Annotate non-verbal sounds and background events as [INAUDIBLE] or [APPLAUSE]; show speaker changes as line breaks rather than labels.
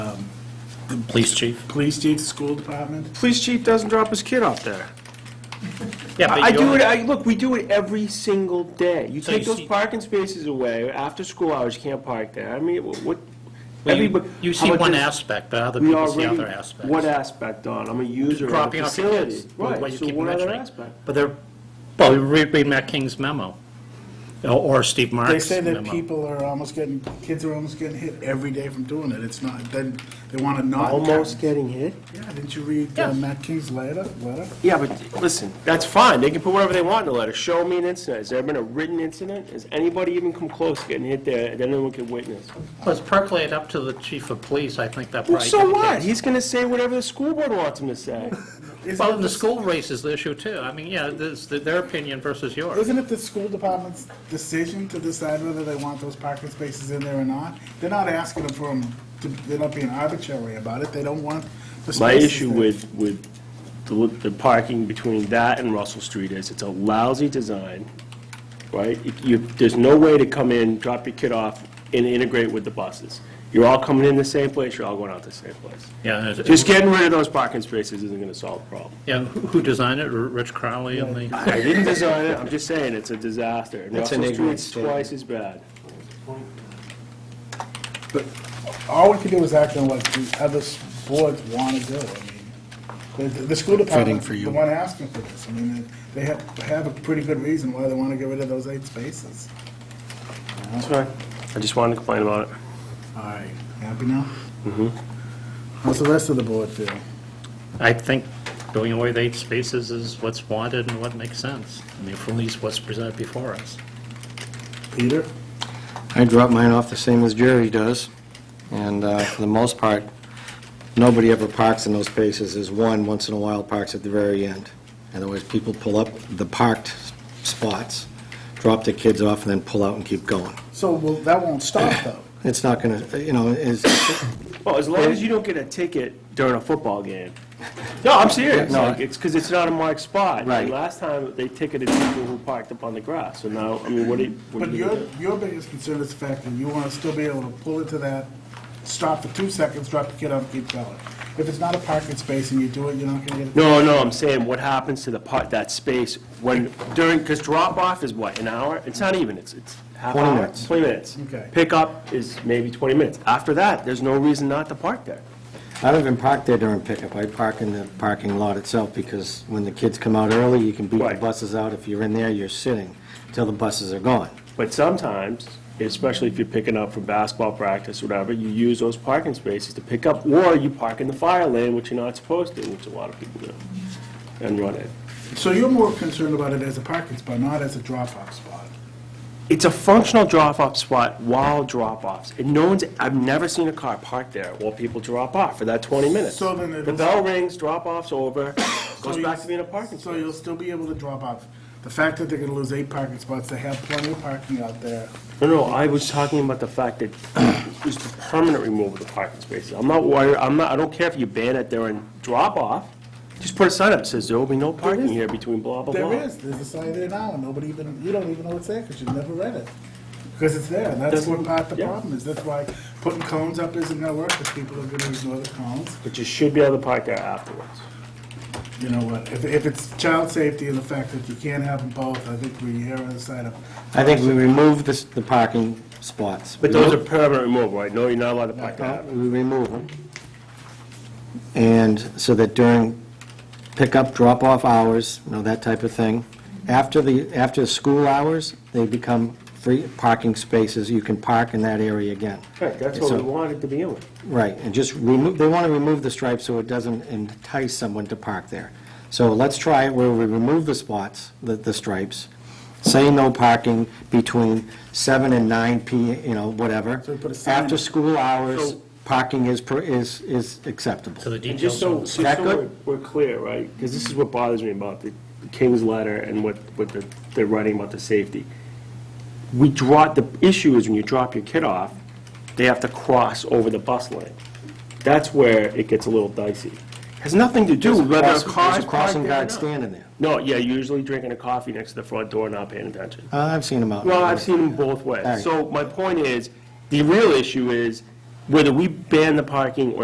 Police chief?
Police chief, school department?
Police chief doesn't drop his kid off there.
Yeah, but
I I
you
do
don't-
it, I, look, we do it every single day. You
So
take
you
those
see-
parking spaces away, after school hours, you can't park there. I mean, wh- what,
Well, you-
everybody.
You
how
see
about
one
this?
aspect, but other
We
people see
already-
other aspects.
What aspect, Don? I'm a user of
Dropping
the
off your
facility.
kids, what
Right,
you
so
keep
what other
mentioning.
aspect?
But they're, well, read read Matt King's memo, or- or Steve
They
Mark's
say that
memo.
people are almost getting, kids are almost getting hit every day from doing it. It's not, then they want to not.
Almost getting hit?
Yeah, didn't you read uh,
Yeah.
Matt King's letter? letter?
Yeah, but listen, that's fine. They can put whatever they want in the letter. Show me an incident. Has there been a written incident? Has anybody even come close to getting hit there that anyone could witness?
Let's percolate up to the chief of police, I think that
Well,
probably.
so what?
indicates-
He's gonna say whatever the school board wants him to say.
Well,
Isn't
and the
it,
school raises the issue too. I mean, yeah, there's their opinion versus yours.
isn't it the school department's decision to decide whether they want those parking spaces in there or not? They're not asking them for them, they're not being arbitrary about it. They don't want the spaces
My issue
there.
with, with the the parking between that and Russell Street is it's a lousy design, right? You, there's no way to come in, drop your kid off, and integrate with the buses. You're all coming in the same place, you're all going out the same place.
Yeah, and it-
Just getting rid of those parking spaces isn't gonna solve the problem.
yeah, who who designed it? R- Rich Crowley and the,
I didn't design it, I'm just saying, it's a disaster. And
That's an
Russell
ignorant
Street's twice as bad.
But all we can do is act on what the other s- boards want to do. I mean, the, the school department's the one asking for this. I mean, they have, have a pretty good reason why they want to get rid of those eight spaces.
That's right. I just wanted to complain about it.
All right, happy now? Mm-hmm. How's the rest of the board feel?
I think going away with eight spaces is what's wanted and what makes sense. I mean, at least what's presented before us.
Peter?
I drop mine off the same as Jerry does, and uh, for the most part, nobody ever parks in those spaces. There's one, once in a while, parks at the very end. Otherwise, people pull up the parked spots, drop their kids off, and then pull out and keep going.
So, well, that won't stop, though.
It's not going to, you know, it's,
Well, as long as you don't get a ticket during a football game. No, I'm serious.
No.
Like, it's because it's not a marked spot.
Right.
And Last time, they ticketed people who parked up on the grass, so now, I mean, what do you,
[COUGHS]
what
But
do you
your,
do?
your biggest concern is the fact that you want to still be able to pull into that, stop for two seconds, drop the kid off, and keep going. If it's not a parking space and you do it, you're not going to get,
No, no, I'm saying, what happens to the part, that space when, during, because drop-off is what, an hour? It's not even, it's, it's half
20
hour.
minutes.
Twenty minutes.
Okay.
Pickup is maybe twenty minutes. After that, there's no reason not to park there.
I don't even park there during pickup. I park in the parking lot itself, because when the kids come out early, you can beat the
Right.
buses out. If you're in there, you're sitting till the buses are gone.
But sometimes, especially if you're picking up from basketball practice, whatever, you use those parking spaces to pick up, or you park in the fire lane, which you're not supposed to, which a lot of people do, and run it.
so you're more concerned about it as a parking spot, not as a drop-off spot.
It's a functional drop-off spot while drop-offs, and no one's, I've never seen a car parked there while people drop off for that 20 minutes.
So then it'll-
The bell rings, drop-off's over, goes
[COUGHS] So you-
back to being a parking
So
space.
you'll still be able to drop off. The fact that they're gonna lose eight parking spots, they have plenty of parking out there.
No, no, I was talking about the fact that it was the permanent removal of the parking spaces. I'm not worried, I'm not, I don't care if you ban it during drop-off, just put a sign up that says there will be no parking here between blah, blah, blah.
There is, there's a sign there now, and nobody even, you don't even know it's there, because you've never read it. Because it's there, and that's what
Doesn't-
part the
yeah.
problem is. That's why putting cones up isn't gonna work, because people are gonna ignore the cones.
But you should be able to park there afterwards.
You know what, if, if it's child safety and the fact that you can't have them both, I think we err on the side of,
I think we remove this- the parking spots.
But those are permanent removal, right? No, you're not allowed to park there.
Uh, We remove them. And so that during pickup, drop-off hours, you know, that type of thing, after the, after the school hours, they become free parking spaces, you can park in that area again.
Right, that's what
So-
we wanted to be in.
Right, and just remove, they want to remove the stripe so it doesn't entice someone to park there. So let's try it where we remove the spots, the, the stripes, say no parking between seven and nine P, you know, whatever.
So we put a sign
After
up.
school hours,
So-
parking is, per- is, is acceptable.
So the
And
details
just so,
of
just
That
so
good?
we're- we're clear, right? Because this is what bothers me about the the King's letter and what, what the- they're writing about the safety. We draw, the issue is when you drop your kid off, they have to cross over the bus lane. That's where it gets a little dicey. Has nothing to do with whether a
There's
car
a
is parked
crossing
there or
guard
not.
standing there.
No, yeah, usually drinking a coffee next to the front door, not paying attention.
Uh, I've seen them out.
Well, I've seen them both
All right.
ways. So my point is, the real issue is whether we ban the parking or